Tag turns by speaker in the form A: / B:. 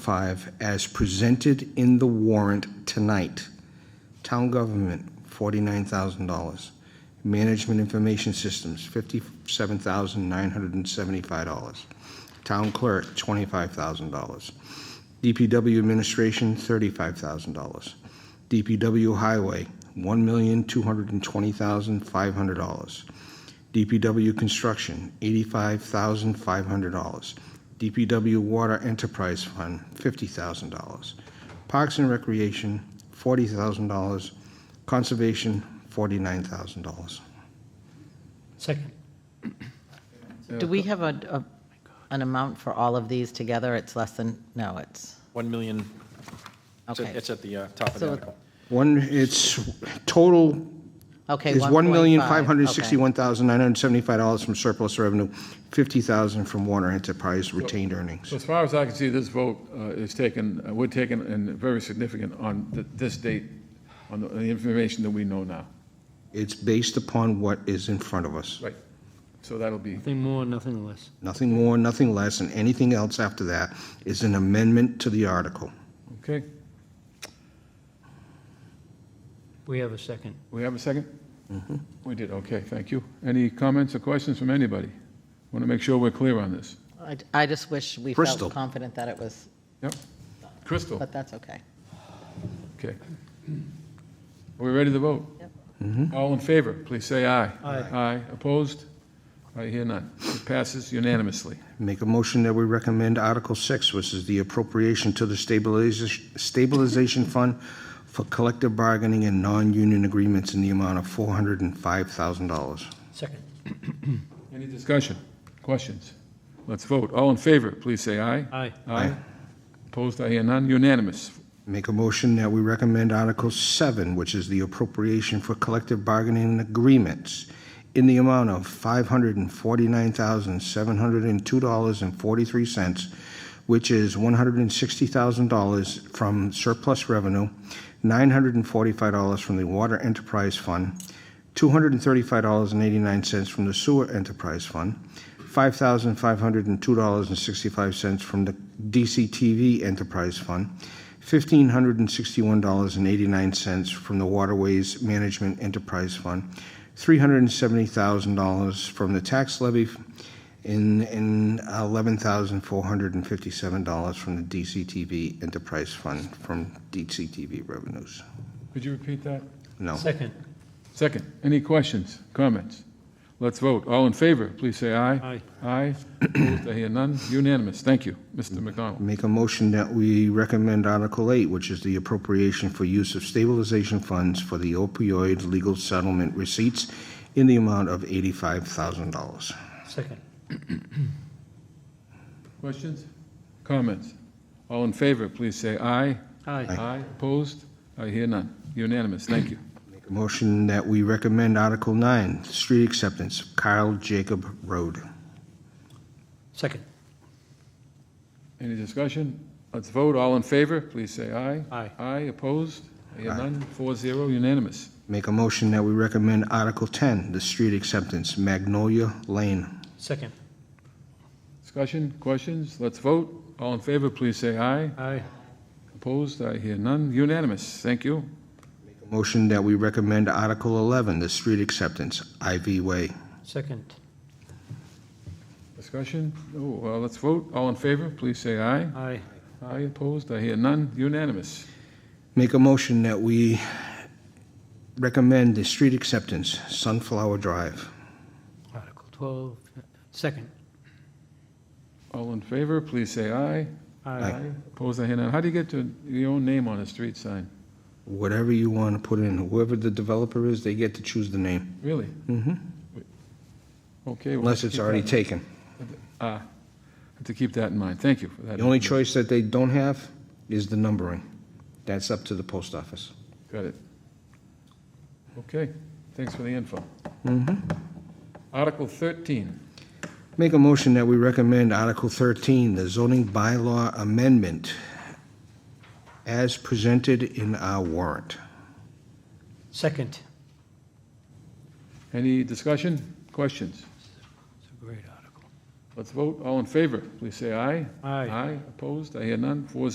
A: five as presented in the warrant tonight. Town government, forty-nine thousand dollars. Management information systems, fifty-seven thousand nine hundred and seventy-five dollars. Town clerk, twenty-five thousand dollars. DPW administration, thirty-five thousand dollars. DPW highway, one million two hundred and twenty thousand five hundred dollars. DPW construction, eighty-five thousand five hundred dollars. DPW Water Enterprise Fund, $50,000. Parks and Recreation, $40,000. Conservation, $49,000.
B: Second.
C: Do we have a, a- an amount for all of these together? It's less than, no, it's,
D: 1 million, it's at-
C: Okay.
D: it's at the uh, top of the
C: So-
D: article.
A: One, it's, total
C: okay.
A: is
C: 1.5, okay.
A: $1,561,975 from surplus revenue, $50,000 from Water Enterprise retained earnings.
E: So as far as I can see, this vote uh, is taken, uh, we're taken and very significant on th- this date, on the on the information that we know now.
A: It's based upon what is in front of us.
E: Right. So that'll be,
B: Nothing more, nothing less.
A: Nothing more, nothing less, and anything else after that is an amendment to the article.
E: okay?
B: We have a second.
E: We have a 2nd We did, okay, thank you. Any comments or questions from anybody? Want to make sure we're clear on this.
C: I I just wish we
A: Bristol.
C: felt confident that it was,
E: Yep. Crystal,
C: but that's okay.
E: okay. Are we ready to vote? All in favor, please say aye.
B: Aye.
E: Aye, opposed? I hear none. It passes unanimously.
A: Make a motion that we recommend Article 6, which is the appropriation to the stabilization, stabilization fund for collective bargaining and non-union agreements in the amount of $405,000.
B: Second.
E: Any discussion, questions? Let's vote. All in favor, please say aye.
B: Aye.
E: Aye. Opposed, I hear none. Unanimous.
A: Make a motion that we recommend Article 7, which is the appropriation for collective bargaining agreements in the amount of $549,702.43, which is $160,000 from surplus revenue, $945 from the Water Enterprise Fund, $235.89 from the Sewer Enterprise Fund, $5,502.65 from the DCTV Enterprise Fund, $1,561.89 from the Waterways Management Enterprise Fund, $370,000 from the tax levy, and and $11,457 from the DCTV Enterprise Fund, from DCTV revenues.
E: Could you repeat that?
A: No.
B: Second.
E: Second, any questions, comments? Let's vote. All in favor, please say aye. Aye.
B: Aye.
E: Opposed, I hear none. Unanimous. Thank you, Mr. McDonald.
A: Make a motion that we recommend Article 8, which is the appropriation for use of stabilization funds for the opioid legal settlement receipts in the amount of $85,000.
B: Second.
E: Questions, comments? All in favor, please say aye.
B: Aye.
E: Aye. Opposed, I hear none. Unanimous. Thank you.
A: Make a motion that we recommend Article 9, street acceptance, Kyle Jacob Road.
B: Second.
E: Any discussion? Let's vote. All in favor, please say aye.
B: Aye.
E: Aye. Opposed, I hear none. Four zero, unanimous.
A: Make a motion that we recommend Article 10, the street acceptance, Magnolia Lane.
B: Second.
E: Discussion, questions? Let's vote. All in favor, please say aye.
B: Aye.
E: Opposed, I hear none. Unanimous, thank you.
A: Make a Motion that we recommend Article 11, the street acceptance, Ivy Way.
B: Second.
E: Discussion? Oh, well, let's vote. All in favor, please say aye.
B: Aye.
E: Aye, opposed, I hear none. Unanimous.
A: Make a motion that we recommend the street acceptance, Sunflower Drive.
B: Article 12. Second.
E: All in favor, please say aye.
B: Aye.
E: Opposed, I hear none. How do you get to your own name on a street sign?
A: Whatever you want to put in, whoever the developer is, they get to choose the name,
E: Really?
A: Mhm.
E: Okay. well,
A: unless
E: let's
A: it's
E: keep
A: already
E: that-
A: taken.
E: Ah, have to keep that in mind. Thank you for that.
A: The only choice that they don't have is the numbering. That's up to the post office.
E: Got it. Okay, thanks for the info.
A: Mm-hmm.
E: Article 13.
A: Make a motion that we recommend Article 13, the zoning bylaw amendment, as presented in our warrant.
B: Second.
E: Any discussion, questions?
B: It's a great article.
E: Let's vote. All in favor, please say aye.
B: Aye.
E: Aye, opposed, I hear none. Four